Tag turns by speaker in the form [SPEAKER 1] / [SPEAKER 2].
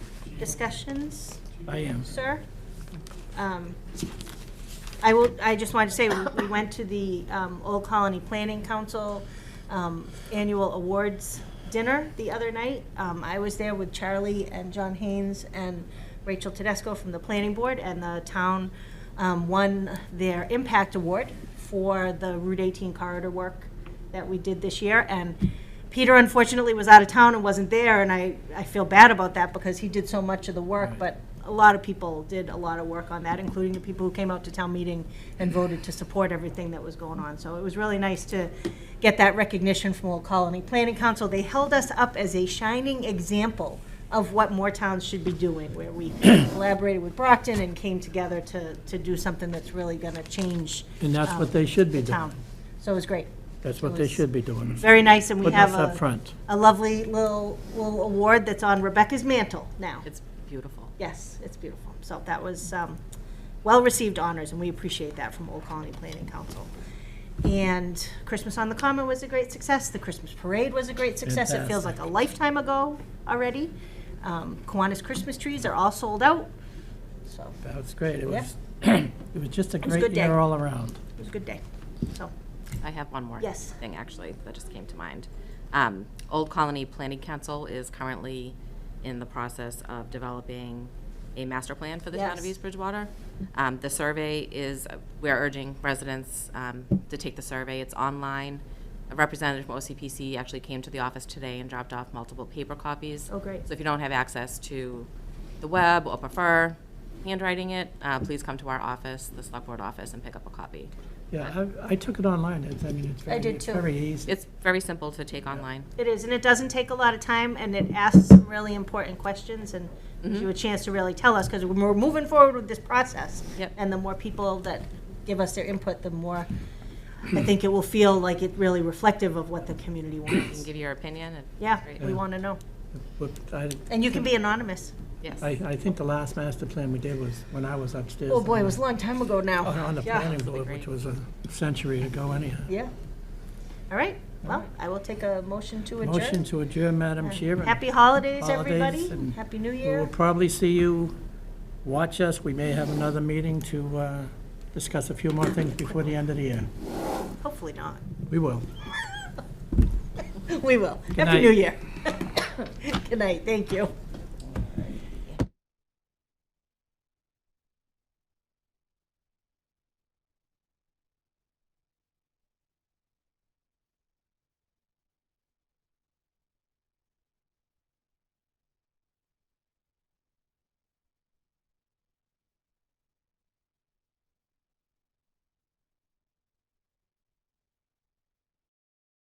[SPEAKER 1] discussions,
[SPEAKER 2] I am.
[SPEAKER 1] sir? Um, I will, I just wanted to say, we went to the um, Old Colony Planning Council um, Annual Awards Dinner the other night. Um, I was there with Charlie and John Haynes and Rachel Tedesco from the Planning Board, and the town um, won their Impact Award for the Route 18 corridor work that we did this year. And Peter unfortunately was out of town and wasn't there, and I, I feel bad about that because he did so much of the work, but a lot of people did a lot of work on that, including the people who came out to town meeting and voted to support everything that was going on. So it was really nice to get that recognition from Old Colony Planning Council. They held us up as a shining example of what more towns should be doing, where we collaborated with Brockton and came together to, to do something that's really gonna change um,
[SPEAKER 2] And that's what they should be
[SPEAKER 1] the town.
[SPEAKER 2] doing.
[SPEAKER 1] So it was great.
[SPEAKER 2] That's what they should be doing.
[SPEAKER 1] Very nice, and we
[SPEAKER 2] Putting us
[SPEAKER 1] have
[SPEAKER 2] up
[SPEAKER 1] a,
[SPEAKER 2] front.
[SPEAKER 1] a lovely little, little award that's on Rebecca's mantle now.
[SPEAKER 3] It's beautiful.
[SPEAKER 1] Yes, it's beautiful. So that was um, well-received honors, and we appreciate that from Old Colony Planning Council. And Christmas on the Common was a great success. The Christmas Parade was a great success. It feels like a lifetime ago already. Um, Kiwanis Christmas trees are all sold out, so
[SPEAKER 2] That was great. It
[SPEAKER 1] Yeah.
[SPEAKER 2] was, it was just a
[SPEAKER 1] was a
[SPEAKER 2] great
[SPEAKER 1] good day.
[SPEAKER 2] year all around.
[SPEAKER 1] it was a good day. So,
[SPEAKER 3] I have one more
[SPEAKER 1] Yes.
[SPEAKER 3] thing, actually, that just came to mind. Um, Old Colony Planning Council is currently in the process of developing a master plan for the town of
[SPEAKER 1] Yes.
[SPEAKER 3] East Bridgewater. Um, The survey is, we're urging residents um, to take the survey. It's online. A representative from OCPC actually came to the office today and dropped off multiple paper copies.
[SPEAKER 1] Oh, great.
[SPEAKER 3] So if you don't have access to the web or prefer handwriting it, uh, please come to our office, the Select Board office, and pick up a copy.
[SPEAKER 2] Yeah, I, I took it online. It's, I mean, it's very,
[SPEAKER 1] did
[SPEAKER 2] it's
[SPEAKER 1] too.
[SPEAKER 2] very easy.
[SPEAKER 3] It's very simple to take online.
[SPEAKER 1] It is, and it doesn't take a lot of time, and it asks some really important questions and
[SPEAKER 3] Mm-hmm.
[SPEAKER 1] gives you a chance to really tell us, because we're moving forward with this process.
[SPEAKER 3] Yep.
[SPEAKER 1] And the more people that give us their input, the more, I think it will feel like it really reflective of what the community
[SPEAKER 3] You can
[SPEAKER 1] wants.
[SPEAKER 3] give your opinion and.
[SPEAKER 1] Yeah,
[SPEAKER 3] Great.
[SPEAKER 1] we want to know.
[SPEAKER 2] But I,
[SPEAKER 1] And you can be anonymous.
[SPEAKER 3] Yes.
[SPEAKER 2] I, I think the last master plan we did was when I was upstairs.
[SPEAKER 1] Oh, boy, it
[SPEAKER 2] on
[SPEAKER 1] was a long time ago now.
[SPEAKER 2] the- Oh, On the
[SPEAKER 1] Yeah.
[SPEAKER 2] planning board, which was a century ago anyhow.
[SPEAKER 1] Yeah. All right, well, I will take a motion to adjourn.
[SPEAKER 2] Motion to adjourn, Madam Chair. and
[SPEAKER 1] Happy holidays,
[SPEAKER 2] Holidays
[SPEAKER 1] everybody.
[SPEAKER 2] and
[SPEAKER 1] Happy New
[SPEAKER 2] We will
[SPEAKER 1] Year.
[SPEAKER 2] probably see you, watch us. We may have another meeting to uh, discuss a few more things before the end of the year.
[SPEAKER 1] Hopefully not.
[SPEAKER 2] We will.
[SPEAKER 1] We will.
[SPEAKER 2] Good
[SPEAKER 1] Happy New
[SPEAKER 2] night.
[SPEAKER 1] Year. Good night, thank you.